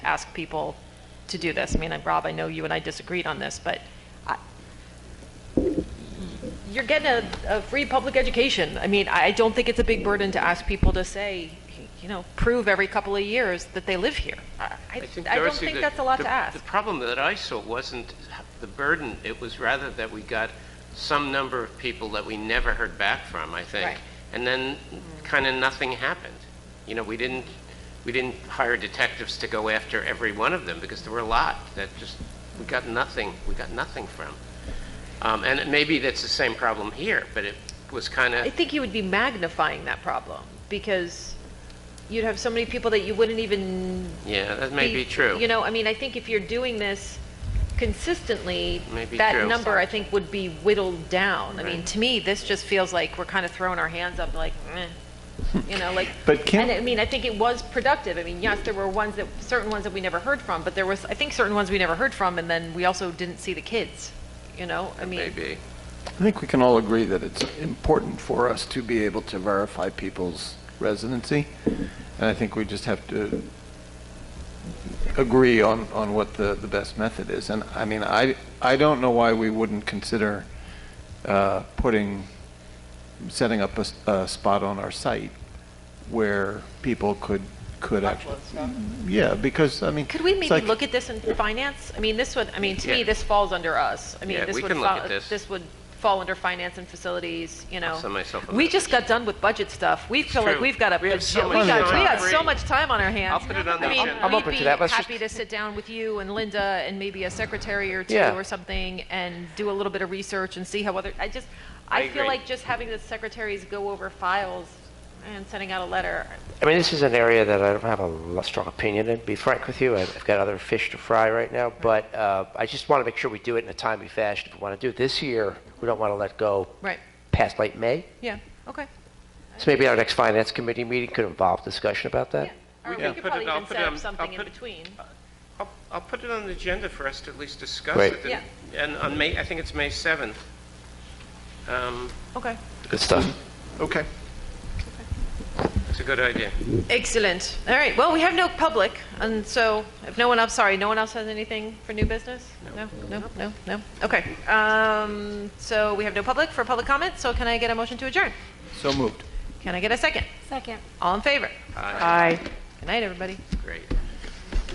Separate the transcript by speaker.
Speaker 1: ask people to do this. I mean, and Rob, I know you and I disagreed on this, but I, you're getting a, a free public education. I mean, I don't think it's a big burden to ask people to say, you know, prove every couple of years that they live here. I, I, I don't
Speaker 2: Darcy,
Speaker 1: think
Speaker 2: the-
Speaker 1: that's a lot
Speaker 2: the-
Speaker 1: to ask.
Speaker 2: The problem that I saw wasn't the burden, it was rather that we got some number of people that we never heard back from, I
Speaker 1: Right.
Speaker 2: think. And then kind of nothing happened. You know, we didn't, we didn't hire detectives to go after every one of them because there were a lot that just, we got nothing, we got nothing from. Um, And it- maybe that's the same problem here, but it was kind
Speaker 1: I
Speaker 2: of,
Speaker 1: think you would be magnifying that problem because you'd have so many people that you wouldn't even
Speaker 2: yeah, that may be true.
Speaker 1: You know, I mean, I think if you're doing this consistently,
Speaker 2: May be
Speaker 1: that
Speaker 2: true.
Speaker 1: number I think would be whittled down. I mean,
Speaker 2: Right.
Speaker 1: to me, this just feels like we're kind of throwing our hands up, like, meh. you know, like.
Speaker 3: But can-
Speaker 1: and I mean, I think it was productive. I mean, yes, there were ones that certain ones that we never heard from, but there was I think certain ones we never heard from, and then we also didn't see the kids. You know, I mean,
Speaker 2: Maybe.
Speaker 3: I think we can all agree that it's important for us to be able to verify people's residency, and I think we just have to agree on, on what the, the best method is. And, I mean, I, I don't know why we wouldn't consider uh, putting, setting up a, s- a spot on our site where people could, could actually... Yeah, because, I mean...
Speaker 1: Could we
Speaker 3: it's
Speaker 1: maybe
Speaker 3: like-
Speaker 1: look at this in finance? I mean, this would, I mean, to me,
Speaker 2: Yeah.
Speaker 1: this falls under us. I mean,
Speaker 2: Yeah,
Speaker 1: this
Speaker 2: we
Speaker 1: would
Speaker 2: can look
Speaker 1: fall,
Speaker 2: at this.
Speaker 1: this would fall under finance and facilities, you know.
Speaker 2: send myself a
Speaker 1: We just got done with budget stuff. We feel like
Speaker 2: true.
Speaker 1: we've got a,
Speaker 2: We have
Speaker 1: bajillion-
Speaker 2: so
Speaker 1: we
Speaker 2: much
Speaker 1: got,
Speaker 2: time.
Speaker 1: we got so
Speaker 2: Free.
Speaker 1: much time on our hands.
Speaker 2: I'll put it on the
Speaker 1: I mean,
Speaker 2: agenda. I'm
Speaker 1: we'd
Speaker 4: open to
Speaker 1: be
Speaker 4: that. Let's just-
Speaker 1: Happy to sit down with you and Linda and maybe a secretary or two
Speaker 4: Yeah.
Speaker 1: or something and do a little bit of research and see how other, I just, I
Speaker 2: I
Speaker 1: feel
Speaker 2: agree.
Speaker 1: like just having the secretaries go over files and sending out a letter,
Speaker 4: I mean, this is an area that I don't have a lo- strong opinion in, to be frank with you. I've I've got other fish to fry right now, but uh, I just want to make sure we do it in a timely fashion. If we want to do it this year, we don't want to let go
Speaker 1: right,
Speaker 4: past late May.
Speaker 1: yeah, okay.
Speaker 4: So maybe our next finance committee meeting could involve discussion about that.
Speaker 1: Yeah, Or
Speaker 2: can
Speaker 1: we could
Speaker 2: put it-
Speaker 1: probably
Speaker 2: I'll
Speaker 1: even
Speaker 2: put it
Speaker 1: set
Speaker 2: on-
Speaker 1: up
Speaker 2: I'll
Speaker 1: something in
Speaker 2: put-
Speaker 1: between.
Speaker 2: I'll, I'll put it on the agenda for us to at least discuss
Speaker 4: Great.
Speaker 2: it. and- And on May, I think it's May 7th. Um,
Speaker 1: Okay.
Speaker 4: Good stuff.
Speaker 3: Okay.
Speaker 2: It's a good idea.
Speaker 1: Mm-hmm. Excellent. All right, well, we have no public, and so if no one else, sorry, no one else has anything for new business? No, no, no, no. Okay. Um, so we have no public for public comment, so can I get a motion to adjourn?
Speaker 3: So moved.
Speaker 1: Can I get a second?
Speaker 5: Second.
Speaker 1: All in favor?
Speaker 2: Aye.
Speaker 1: Aye. Good night, everybody.
Speaker 2: Great.